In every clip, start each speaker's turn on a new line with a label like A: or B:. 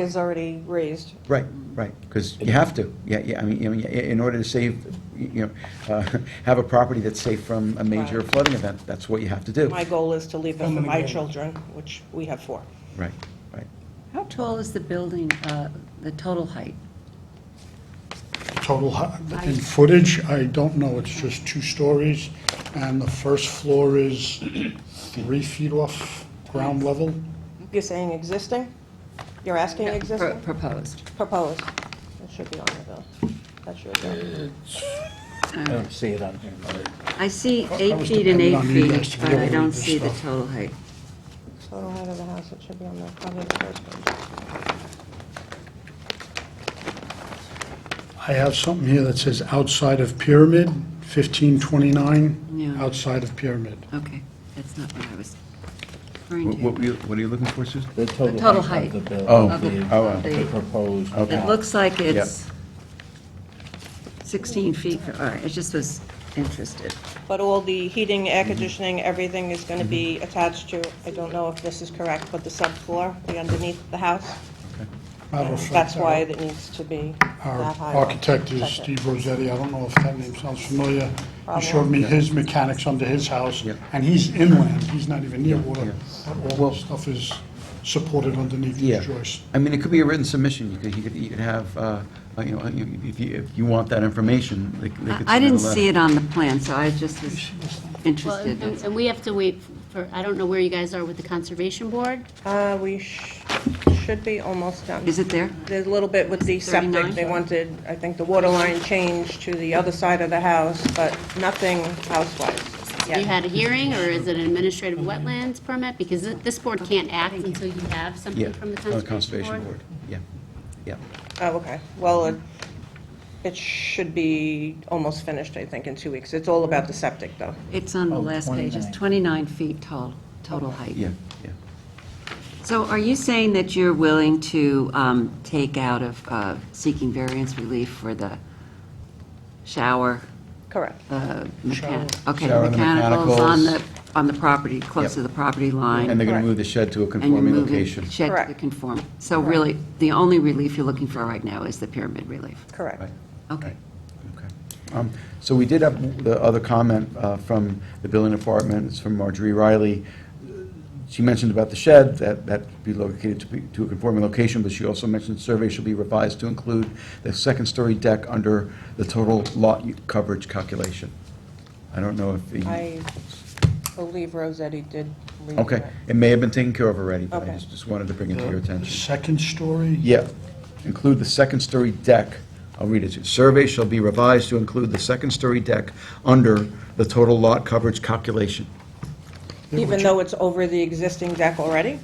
A: is already raised.
B: Right, right, because you have to, yeah, yeah, I mean, I mean, i- in order to save, you know, uh, have a property that's safe from a major
A: Right.
B: flooding event, that's what you have to do.
A: My goal is to leave it for my children, which we have four.
B: Right, right.
C: How tall is the building, uh, the total height?
D: total, hu- in footage, I don't know, it's just two stories, and the first floor is three feet off ground level.
A: You're saying existing? You're asking
C: Pro-
A: existing?
C: Proposed.
A: Proposed. That should be on the bill. That should go.
C: All
E: I
C: right.
E: don't see it on here.
C: I see
D: I
C: eight
D: was
C: feet and
D: depending
C: eight
D: on you guys
C: feet,
D: to be
C: but
D: able
C: I
D: to
C: don't
D: read this
C: see the
D: stuff.
C: total height.
A: Total height of the house, it should be on the, probably the first page.
D: I have something here that says outside of pyramid, fifteen twenty-nine,
C: Yeah.
D: outside of pyramid.
C: Okay, that's not what I was referring
B: What, what
C: to.
B: were you- what are you looking for, Susan?
E: The
C: The
E: total
C: total
E: height of
C: height
E: the building.
B: Oh,
C: of the-
B: oh,
C: of
E: The
C: the-
E: proposed.
B: Okay.
C: It
E: lot.
C: looks like it's 16 feet, all right, I just was interested.
A: But all the heating, air conditioning, everything is going to
D: Mm-hmm.
A: be attached to, I don't know if this is correct, but the subfloor, the underneath the house.
D: Matter of fact,
A: That's why
D: our-
A: it needs to be
D: Our
A: that high.
D: architect is
A: That's it.
D: Steve Rossetti, I don't know if that name sounds familiar. He showed me his mechanics under his house,
B: Yeah.
D: and he's inland, he's not even near water.
B: yeah.
D: but All
B: Well-
D: this stuff is supported underneath
B: Yeah.
D: these joists.
B: I mean, it could be a written submission, you could, you could, you could have, uh, uh, you know, uh, you- if you, if you want that information, they c- they could.
C: I I didn't
B: submit a
C: see
B: letter.
C: it on the plan, so I just was
F: Well,
C: interested.
F: and-
C: that's-
F: and and we have to wait for, I don't know where you guys are with the Conservation Board.
A: Uh, we sh- should be almost done.
C: Is it there?
A: There's a little bit with the septic,
C: 39?
A: they wanted, I think, the water line changed to the other side of the house, but nothing house-wise
F: Have you
A: yet.
F: had a hearing, or is it an administrative wetlands permit? Because thi- this board can't act until you have
B: Yeah,
F: something from the
B: on the
F: Conservation Board.
B: Yeah, yeah.
A: Oh, okay, well, it, it should be almost finished, I think, in two weeks. It's all about the septic, though.
C: It's on the last page, it's 29
E: 29.
C: feet tall, total height.
B: Yeah, yeah.
C: So are you saying that you're willing to um, take out of uh, seeking variance relief for the shower,
A: Correct.
C: the
D: Shower.
C: mechanic? Okay,
B: Shower,
C: the
B: the
C: mechanicals on the,
B: mechanicals.
C: on the property, close
B: Yep.
C: to the property
B: And
C: line,
B: they're gonna
A: Correct.
B: move the shed to a
C: and you're
B: conforming
C: moving
B: location.
C: shed to
A: Correct.
C: conform. So really, the only relief you're looking for right now is the pyramid relief?
A: Correct.
B: Right.
C: Okay.
B: Right. Okay. Um, So we did have the other comment uh, from the building department, it's from Marjorie Riley. She mentioned about the shed, that that be located to be- to a conforming location, but she also mentioned survey should be revised to include the second-story deck under the total lot u- coverage calculation. I don't know if,
A: I
B: the-
A: believe Rosetti did leave
B: okay,
A: that.
B: it may have been taken care of already, but I
A: Okay.
B: just- just wanted to bring it to your
D: The-
B: attention.
D: The second story?
B: Yeah, include the second-story deck. I'll read it to you. Survey shall be revised to include the second-story deck under the total lot coverage calculation.
D: Yeah,
A: Even
D: which-
A: though it's over the existing deck already?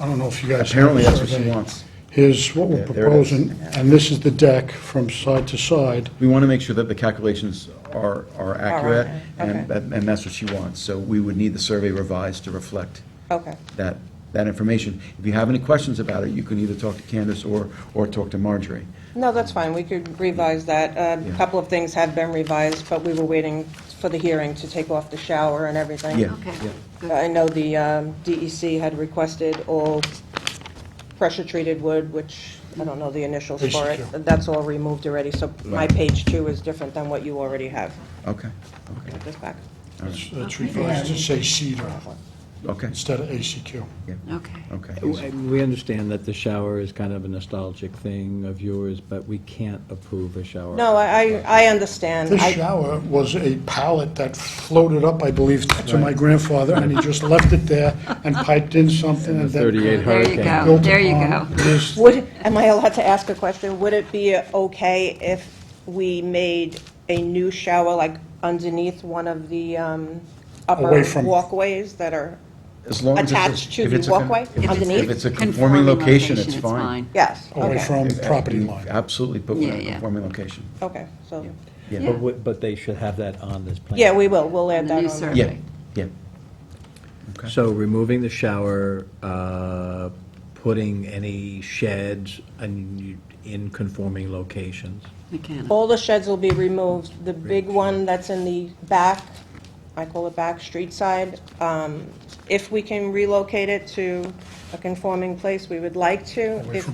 D: I don't know if you guys. have
B: Apparently,
D: the
B: that's what she
D: survey.
B: wants.
D: Here's what we're
B: Yeah, there it is.
D: proposing, and this is the deck from side to side.
B: We want to make sure that the calculations are, are accurate,
A: okay, okay.
B: and, that- and that's what she wants. So we would need the survey revised to reflect
A: Okay,
B: that, that information. If you have any questions about it, you can either talk to Candace or, or talk to Marjorie.
A: no, that's fine, we could revise that. A
B: Yeah.
A: couple of things have been revised, but we were waiting for the hearing to take off the shower and everything.
B: Yeah.
C: Okay, good.
A: I know the um, DEC had requested all pressure-treated wood, which, I don't know the initials
D: Page
A: for it.
D: two.
A: That's all removed already, so my
B: Right.
A: page two is different than what you already have.
B: Okay, okay,
A: Put this back.
D: It's it's revised to say cedar
B: okay,
D: instead of ACQ.
C: Okay.
B: okay.
E: We understand that the shower is kind of a nostalgic thing of yours, but we can't approve a shower.
A: No, I, I I understand.
D: This
A: I-
D: shower was a pallet that floated up, I believe, to my grandfather, and he just left it there and piped in something and then.
E: 38
C: There you
E: Hurricane.
C: go,
D: built
C: there you go.
D: upon this.
A: Would, am I allowed to ask a question? Would it be okay if we made a new shower, like underneath one of the um, upper
D: Away from-
A: walkways that are,
B: As long as it's a-
A: Attached to
B: if
A: the
B: it's a-
A: walkway
B: if it's-
A: underneath?
B: If it's a conforming location, it's fine.
A: yes?
D: Away
A: okay,
D: from property line.
B: Absolutely, but we're in
C: Yeah,
B: a
C: yeah.
B: conforming location.
A: Okay, so,
B: Yeah,
E: But, we- but they should have that on this plan.
A: yeah, we will, we'll add
C: And
A: that
C: the
A: on.
C: new
A: there.
B: yeah,
C: survey.
B: yeah. Okay.
E: So removing the shower, uh, putting any sheds in in conforming locations.
C: Mechanical.
A: All the sheds will be removed. The big one that's in the back, I call it back, street side, um, if we can relocate it to a conforming place, we would like to.
D: Away
A: If
D: from